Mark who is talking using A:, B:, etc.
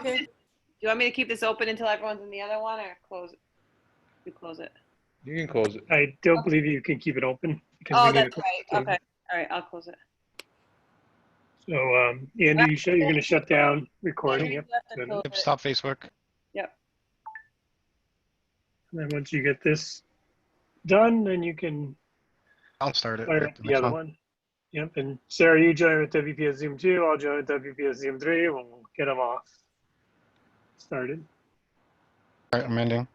A: Okay.
B: Do you want me to keep this open until everyone's in the other one or close it? You close it.
C: You can close it.
A: I don't believe you can keep it open. because
B: Oh,
A: we need
B: that's
A: to-
B: right. Okay. All right, I'll close it.
A: So, um, Andy, you show, you're gonna shut down recording, yep.
B: Left and
A: Yep,
B: close
D: Yep,
B: it.
D: stop Facebook.
A: And then once you get this done, then you can
D: I'll start it.
A: fire
D: Yep,
A: up
D: next
A: the other
D: one.
A: one. Yep, and Sarah, you join with WPS Zoom two, I'll join with WPS Zoom three, we'll get them off started.
D: All right, I'm ending.